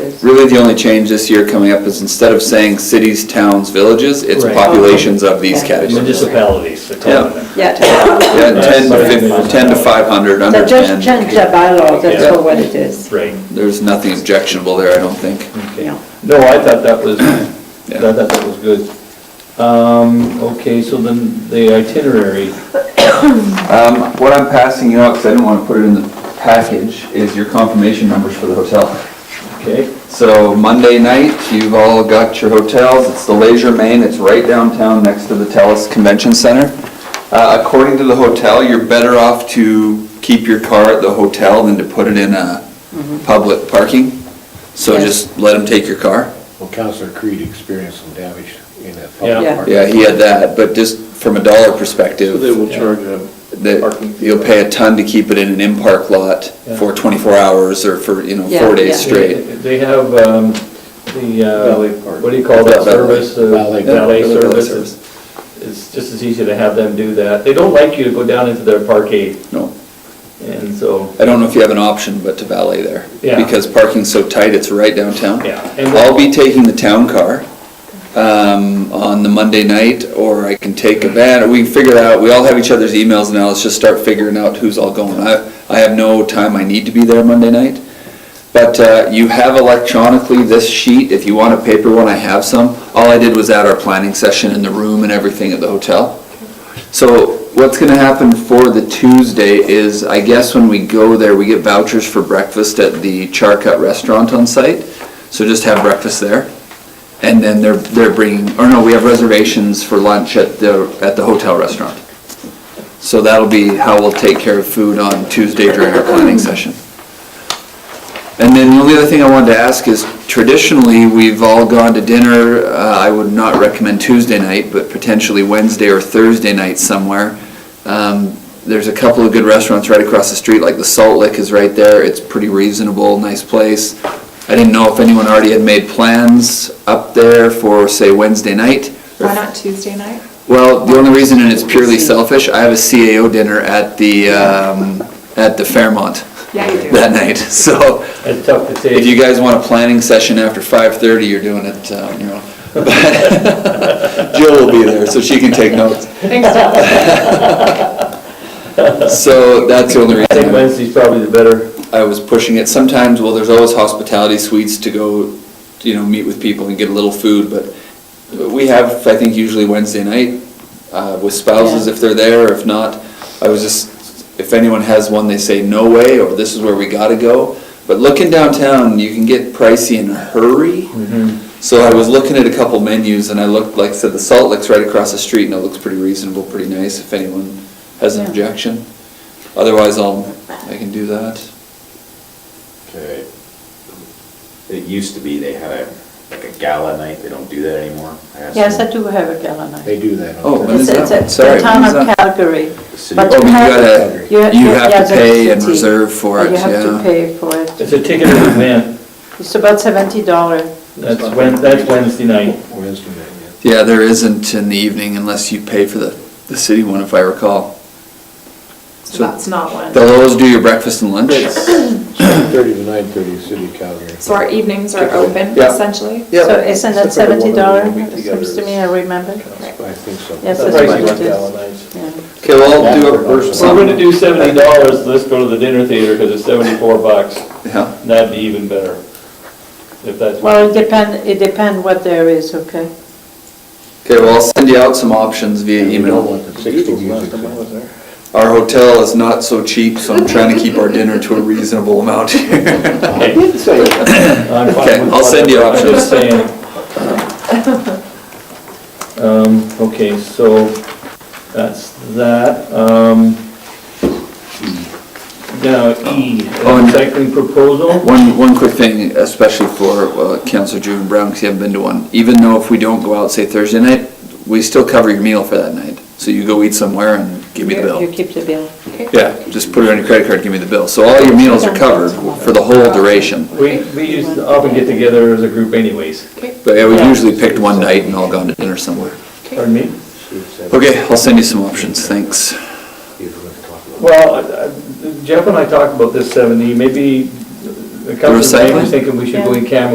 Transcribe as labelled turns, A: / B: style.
A: is.
B: Really, the only change this year coming up is instead of saying cities, towns, villages, it's
C: Right.
B: populations of these
A: Yeah.
B: categories.
C: Municipalities, they're calling them.
A: Yeah, to-
B: Yeah, 10 to
C: Right.
B: fif- 10 to 500,
A: so
B: under
A: just change
B: 10.
A: the bylaw, that's
C: Yeah.
A: all what it is.
C: Right.
B: There's nothing objectionable there, I don't think.
D: Mm-hmm.
C: Okay.
A: Yeah.
D: No, I thought that was, I
B: Yeah.
D: thought that was good. Um, okay, so then the itinerary,
B: Um, What I'm passing you out, because I didn't want to put it in the package, is your confirmation numbers for the hotel.
D: okay?
B: So Monday night, you've all got your hotels, it's the Leisure Main, it's right downtown next to the Telus Convention Center. Uh, According to the hotel, you're better off to keep your car at the hotel than to put it in a public parking. So
A: Mm-hmm. Yes.
B: just let them take your car.
E: Well, Counselor Creed experienced some damage in that
C: Yeah.
E: public park.
B: Yeah, he had that, but just from a dollar perspective.
F: They will charge a parking
B: that
F: fee.
B: you'll pay a ton to keep it in an in-park lot for 24 hours or for, you know,
A: Yeah,
B: four days
A: yeah.
B: straight.
D: They have, um, the,
F: Valet
D: uh,
F: park.
D: what do you call that
B: Valet.
D: service? uh,
E: Valet.
D: Valet
B: Valet
D: service.
B: service.
D: It's just as easy to have them do that. They don't like you to go down into their parkade,
B: No,
D: and so,
B: I don't know if you have an option but to valet there.
D: Yeah.
B: Because parking's so tight, it's right downtown.
D: Yeah, and-
B: I'll be taking the town car um, on the Monday night, or I can take a van, or we can figure it out. We all have each other's emails now, let's just start figuring out who's all going. I, I have no time, I need to be there Monday night. But uh, you have electronically this sheet, if you want a paper one, I have some. All I did was add our planning session in the room and everything at the hotel. So what's gonna happen for the Tuesday is, I guess when we go there, we get vouchers for breakfast at the Charcut Restaurant on site. So just have breakfast there. And then they're, they're bringing, or no, we have reservations for lunch at the, at the hotel restaurant. So that'll be how we'll take care of food on Tuesday during our planning session. And then the only other thing I wanted to ask is traditionally, we've all gone to dinner, uh, I would not recommend Tuesday night, but potentially Wednesday or Thursday night somewhere. Um, There's a couple of good restaurants right across the street, like the Salt Lick is right there, it's pretty reasonable, nice place. I didn't know if anyone already had made plans up there for, say, Wednesday night.
G: Why not Tuesday night?
B: Well, the only reason, and it's purely selfish, I have a CAO dinner at the, um, at the Fairmont
G: Yeah, you do.
B: that night, so
D: it's tough to take.
B: if you guys want a planning session after 5:30, you're doing it, um, you know. Jill will be there, so she can take notes.
G: Thanks, Jeff.
B: So that's the only
D: I think
B: reason
D: Wednesday's probably the better,
B: I was pushing it. Sometimes, well, there's always hospitality suites to go, you know, meet with people and get a little food, but we have, I think, usually Wednesday night uh, with spouses
A: Yeah.
B: if they're there, or if not, I was just, if anyone has one, they say, no way, or this is where we gotta go. But looking downtown, you can get pricey in a hurry.
D: Mm-hmm.
B: So I was looking at a couple menus and I looked, like I said, the Salt Lick's right across the street and it looks pretty reasonable, pretty nice if anyone has an
A: Yeah.
B: objection. Otherwise, I'll, I can do that.
H: Okay. It used to be they had a, like a gala night, they don't do that anymore. I asked
A: Yes,
H: them.
A: I do have a gala night.
E: They do that. on
B: Oh,
E: Thursday.
B: when is
A: It's it's
B: that?
A: at
B: Sorry,
A: the
B: when
A: town
B: is
A: of
B: that?
A: Calgary.
H: City.
A: But
B: Oh, you gotta,
A: have-
B: you have
A: yeah,
B: to pay and
A: that's the
B: reserve for it,
A: You have to
B: yeah.
A: pay for it.
D: it's a ticketed event,
A: It's about seventy dollar.
D: that's Wed, that's Wednesday night.
E: Wednesday night, yeah.
B: Yeah, there isn't in the evening unless you pay for the, the city one, if I recall.
G: So that's not one.
B: They'll always do your breakfast and lunch.
E: Thirty to nine thirty, City of Calgary.
G: So our evenings are open
B: Yeah.
G: essentially?
B: Yeah.
A: So isn't that
F: Except for the
A: seventy
F: one that
A: dollar?
F: we meet together
A: Seems to
F: is-
A: me, I remember.
E: I think so.
A: Yes,
D: The
A: that's
D: pricey
A: what it
D: one,
A: is.
D: gala nights.
A: Yeah.
B: Okay, well, I'll do it first.
D: If we're gonna do seventy dollars, let's go to the dinner theater, because it's seventy-four bucks,
B: Yeah,
D: and that'd be even better. If that's,
A: Well, it depend, it depend what there is, okay?
B: okay, well, I'll send you out some options via
E: You
B: email.
E: don't want the sixty music. on.
B: Our hotel is not so cheap, so I'm trying to keep our dinner to a reasonable amount here.
D: okay, I'm fine
B: Okay,
D: with
B: I'll send you
D: whatever. I'm just
B: options.
D: saying. Um, okay, so that's that, um. Now, E,
B: On-
D: recycling proposal,
B: One, one quick thing, especially for uh, Counselor June Brown, because you haven't been to one. Even though if we don't go out, say Thursday night, we still cover your meal for that night. So you go eat somewhere and give me the
A: You- You
B: bill.
A: keep the bill.
B: Yeah, just put it on your credit card, give me the bill. So all your meals are covered for the whole duration.
D: we, we used to often get together as a group anyways,
B: But yeah, we usually picked one night and all gone to dinner somewhere.
D: pardon me?
B: Okay, I'll send you some options, thanks.
D: Well, uh, Jeff and I talked about this seventy, maybe a couple of
B: recycling?
D: was thinking we should go in camera